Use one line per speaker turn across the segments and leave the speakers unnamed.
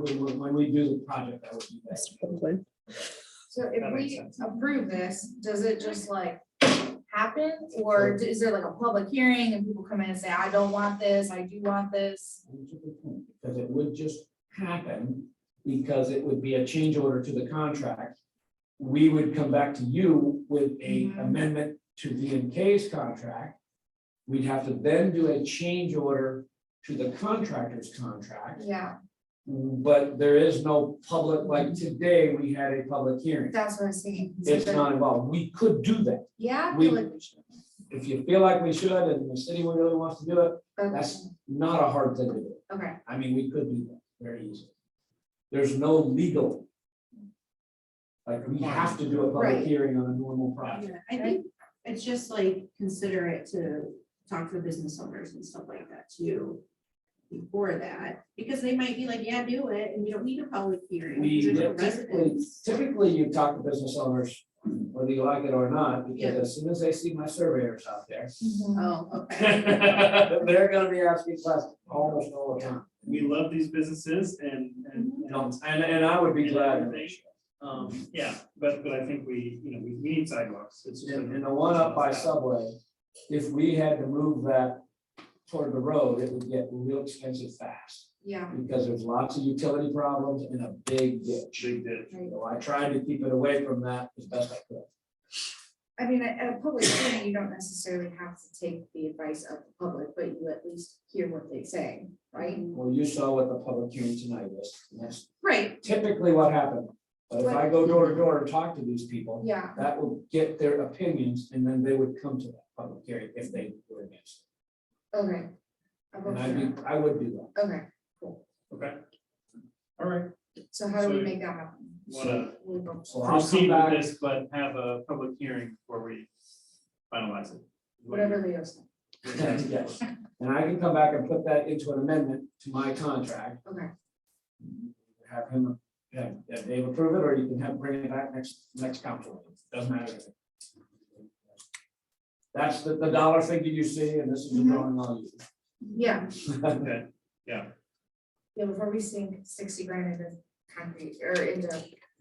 When, when- when we do the project, I would do that.
Mr. Buckland.
So
That
if
makes
we
sense.
approve this, does it just like happen? Or is there like a public hearing and people come in and say, I don't want this, I do want this?
Because it would just happen, because it would be a change order to the contract. We would come back to you with a
Mhm.
amendment to V and K's contract. We'd have to then do a change order to the contractor's contract,
Yeah,
but there is no public, like today, we had a public hearing.
that's what I'm saying. So
It's
the-
not involved. We could do that.
Yeah. I
we-
feel like we should.
If you feel like we should and the city really wants to do it,
Okay,
that's not a hard thing to do.
okay,
I mean, we could do that very easily. There's no legal. Like, we have to do a public
Right.
hearing on a normal project.
Yeah, I think it's just like considerate to talk to the business owners and stuff like that too. Before that, because they might be like, yeah, do it, and you don't need a public hearing.
We
because you're
would
the
typically,
residents.
typically you talk to business owners, whether you like it or not, because
Yeah.
as soon as they see my surveyors out there.
Mm-hmm.
Oh, okay.
They're gonna be asking questions almost all the time.
we love these businesses and, and,
Mm-hmm.
And,
and,
and I would be glad.
um, yeah, but, but I think we, you know, we, we need sidewalks. It's just.
And, and the one up by Subway, if we had to move that toward the road, it would get real expensive fast.
yeah,
because there's lots of utility problems and a big ditch.
Big ditch.
right.
So I tried to keep it away from that as best I could.
I mean, at at a public hearing, you don't necessarily have to take the advice of the public, but you at least hear what they say, right?
Well, you saw what the public hearing tonight was, and that's
Right,
typically what happened. But if I go door to door and talk to these people,
yeah,
that will get their opinions, and then they would come to that public hearing if they were against.
okay.
it. And I do, I would do that.
Okay,
Okay. All right,
so how do we
So-
make that happen?
wanna
We go-
uh, So I'll come
proceed with
back,
this, but have a public hearing before we finalize it.
Whatever Leo said,
yes, and I can come back and put that into an amendment to my contract.
okay.
have him, have have Dave approve it, or you can have, bring it back next, next council, meeting. doesn't matter. That's the, the dollar figure you see, and this is the drawing I'll use.
Yeah,
Okay,
yeah, before we sink sixty grand into concrete or into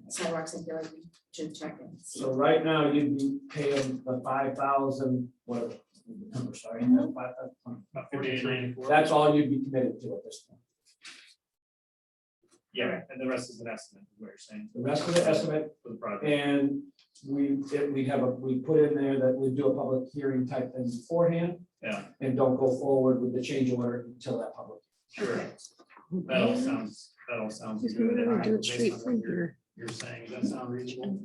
sidewalks, I feel like we should check in.
So right now, you'd be paying the five thousand, whatever, the number, sorry, that's five thousand.
about forty-eight ninety-four.
That's all you'd be committed to at this point.
Yeah, and the rest is an estimate, is what you're saying,
The rest of the estimate,
for the project.
and we, if we have a, we put in there that we do a public hearing type thing beforehand.
Yeah.
And don't go forward with the change order until that public
Sure, that all sounds, that all sounds
Just
good.
remember
and
to do it
based
straight
on what
from
you're-
here.
you're saying, does that sound reasonable?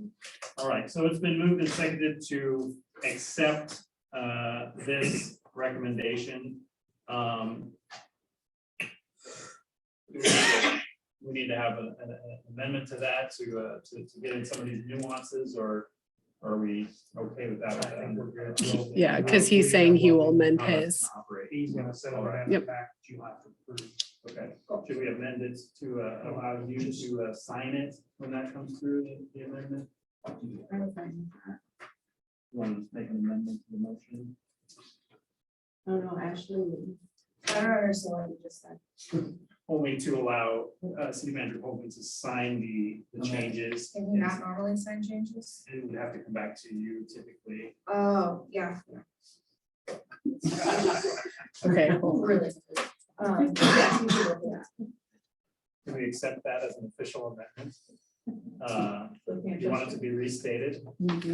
All right, so it's been moved and seconded to accept uh, this recommendation. Um, We we need to have a- an an amendment to that to, uh, to to get in some of these nuances, or are we okay with that?
Yeah, 'cause he's saying he will amend his.
He's gonna settle it
Yep.
back, you have to approve. Okay, should we amend it to uh, allow you to uh, sign it when that comes through, the- the amendment? Want to make an amendment to the motion?
I don't know, Ashley.
I don't understand what you just said.
Only to allow uh, city manager Holman to sign the the
Okay.
changes.
Can you not normally sign changes?
It would have to come back to you typically.
Oh, yeah,
Okay,
really. Um, yeah, you do look at
Can we accept that as an official amendment? Uh,
that.
Do you want it to be restated?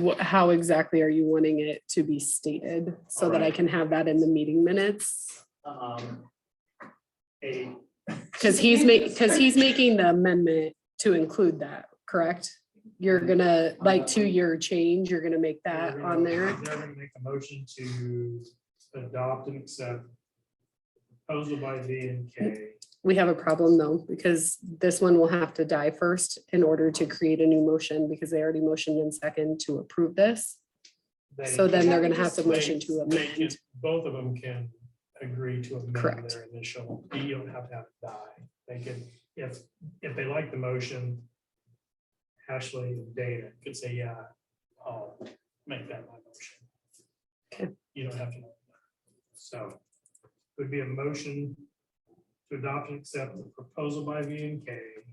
Wh- how exactly are you wanting it to be stated so that I
Alright.
can have that in the meeting minutes?
Um, A,
Because he's ma, because he's making the amendment to include that, correct? You're gonna, like, to your change, you're gonna make that on there.
They're gonna make a motion to adopt and accept proposal by V and K.
We have a problem though, because this one will have to die first in order to create a new motion, because they already motioned in second to approve this.
They-
So then they're gonna have to
they-
motion to
they can-
amend.
Both of them can agree to amend
Correct.
their initial, you don't have to have it die. They can, if, if they like the motion, Ashley and Dana could say, yeah, I'll make that my motion.
Okay.
You don't have to. So it would be a motion to adopt and accept the proposal by V and K